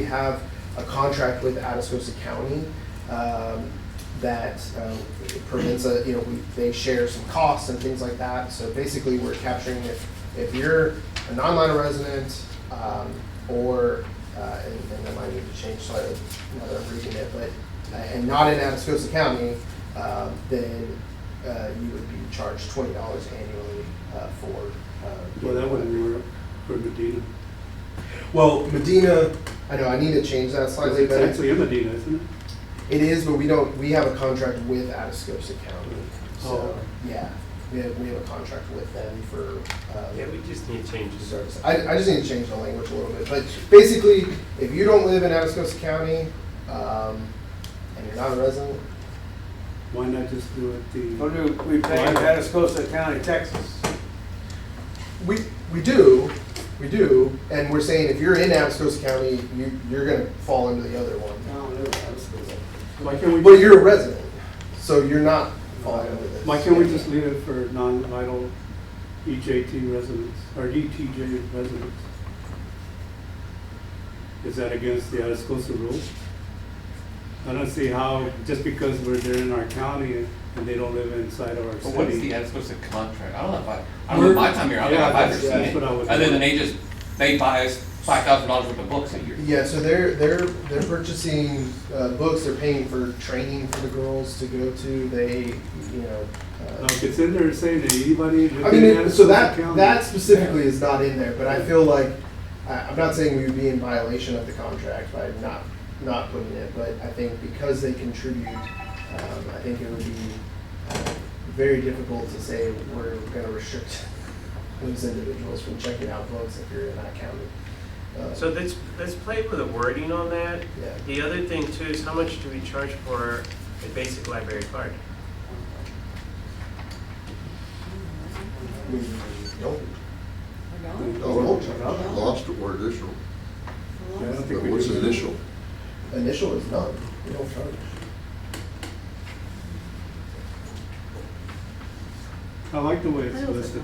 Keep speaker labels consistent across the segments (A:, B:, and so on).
A: have a contract with Atascosa County um, that um, permits a, you know, we- they share some costs and things like that. So basically, we're capturing if, if you're a non-Lima resident um, or, uh, and and that might need to change slightly now that I'm reading it, but, uh, and not in Atascosa County, um, then uh, you would be charged twenty dollars annually uh, for. uh,
B: Well, that wouldn't work for Medina.
A: Well, Medina, I know, I need to change that slightly,
B: It's
A: but it's-
B: actually in Medina, isn't it?
A: it is, but we don't, we have a contract with Atascosa County. So,
B: Oh.
A: yeah, we have, we have a contract with them for,
C: Yeah,
A: uh,
C: we just need changes.
A: service. I, I just need to change the language a little bit, but basically, if you don't live in Atascosa County, um, and you're not a resident,
B: Why not just do it
D: What
B: the,
D: do we pay in Atascosa County, Texas?
A: we, we do, we do, and we're saying if you're in Atascosa County, you, you're gonna fall into the other one.
D: No, no, Atascosa.
B: why can't we?
A: But you're a resident, so you're not falling under this.
B: Why can't we just leave it for non-vital EJT residents, or ETJ residents? Is that against the Atascosa rules? I don't see how, just because we're there in our county and they don't live inside of our
E: But what is the
B: city.
E: Atascosa contract? I don't know if I, I don't know if my time here, I don't know if
B: Yeah,
E: I've ever
B: that's-
E: seen
B: that's
E: it.
B: what I was
E: Other than
B: wondering.
E: they just, they buy us five thousand dollars worth of books a year.
A: Yeah, so they're they're they're purchasing uh, books. They're paying for training for the girls to go to. They, you know. Uh,
B: Like, it's in there saying that anybody
A: I mean,
B: living in
A: it- so
B: Atascosa
A: that
B: County.
A: that specifically is not in there, but I feel like I, I'm not saying we would be in violation of the contract by not not putting it, but I think because they contribute, um, I think it would be uh, very difficult to say we're going to restrict those individuals from checking out books if you're in that county. Uh,
C: So let's, let's play with the wording on that.
A: yeah.
C: The other thing too is how much do we charge for a basic library card?
A: We don't
F: No,
B: Oh,
F: no, Lost or additional,
B: Yeah, I don't think
F: but
B: we
F: what's
B: do.
F: initial?
A: Initial is none, we don't charge.
B: I like the way it's listed.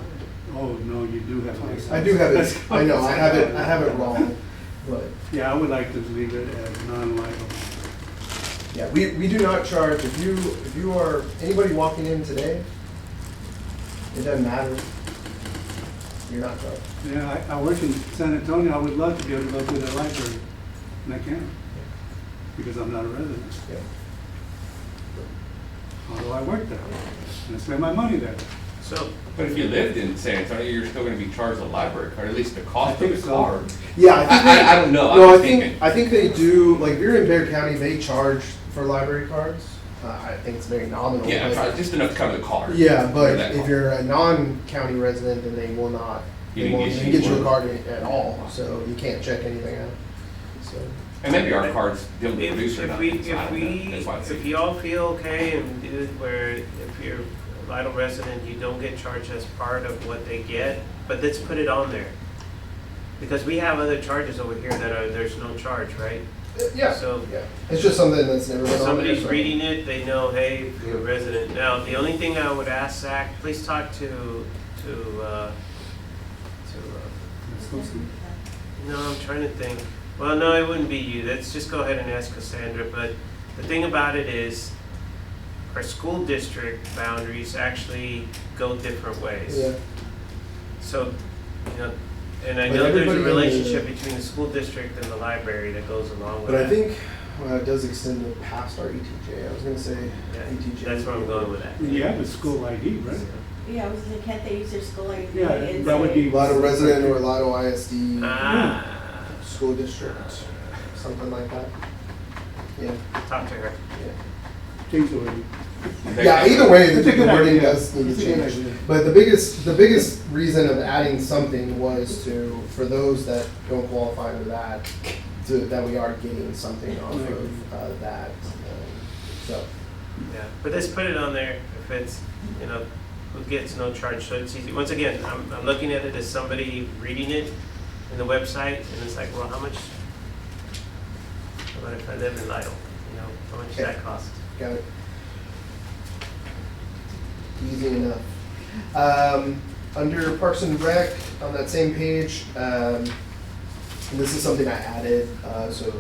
B: Oh, no, you do have license.
A: I do have
B: That's-
A: it, I know, I have it, I have it wrong, but,
B: Yeah, I would like to leave it as non-liable.
A: yeah, we, we do not charge, if you, if you are, anybody walking in today, it doesn't matter, you're not charged.
B: Yeah, I, I work in San Antonio, I would love to be able to go to the library, and I can't, because I'm not a resident,
A: Yeah.
B: although I work there, and I spend my money there.
C: So,
E: But if you lived in San Antonio, you're still gonna be charged a library card, at least the cost
B: I
E: of
B: think
E: the
B: so.
E: card.
A: Yeah, I think
E: I-
A: they-
E: I- I don't know. I'm
A: No, I
E: just
A: think,
E: thinking.
A: I think they do, like, if you're in Bear County, they charge for library cards, uh, I think it's very nominal.
E: Yeah,
A: but-
E: probably just enough to cover the card.
A: Yeah,
E: For
A: but
E: that
A: if
E: card.
A: you're a non-county resident, then they will not,
E: You
A: they
E: didn't
A: won't
E: get
A: get you a
E: any
A: card at at all, so you can't check anything out. So,
E: And maybe our cards don't
C: if,
E: produce or
C: if we,
E: nothing, so I
C: if
E: don't know, that's why
C: we,
E: it's.
C: if y'all feel okay and do it where if you're a vital resident, you don't get charged as part of what they get, but let's put it on there. Because we have other charges over here that are, there's no charge, right?
A: yeah,
C: So-
A: yeah, it's just something that's never been on
C: If
A: there,
C: somebody's
A: so-
C: reading it, they know, hey, if you're a resident. Now, the only thing I would ask, Zach, please talk to, to, uh, to,
B: It's supposed to-
C: uh, no, I'm trying to think. Well, no, it wouldn't be you. Let's just go ahead and ask Cassandra. But the thing about it is, our school district boundaries actually go different ways.
A: Yeah,
C: So, you know, and I
A: But
C: know
A: everybody
C: there's a
A: in the-
C: relationship between the school district and the library that goes along
A: but
C: with that.
A: I think, well, it does extend it past our ETJ, I was gonna say E
C: Yeah,
A: ETJ.
C: That's where I'm going with that.
B: You have a school ID, right?
G: Yeah, I was like, can't they use their school ID?
B: Yeah, that would
G: uh,
B: be.
A: Lotto resident or Lotto ISD,
C: Ah,
A: school district, something like that. Yeah,
C: talk to her.
A: yeah.
B: Change the wording.
A: Yeah, either way,
B: It's a
A: the
B: good
A: wording
B: idea.
A: does need
B: It's
A: to
B: a good
A: change.
B: idea.
A: But the biggest, the biggest reason of adding something was to, for those that don't qualify under that, to, that we are getting something off of, uh, that, um, so.
C: Yeah, but let's put it on there if it's, you know, who gets no charge, so it's easy. Once again, I'm, I'm looking at it as somebody reading it in the website, and it's like, well, how much? How about if I live in Lidle, you know, how much does that cost?
A: Got it. Easy enough. Um, under Parks and Rec, on that same page, um, and this is something I added, uh, so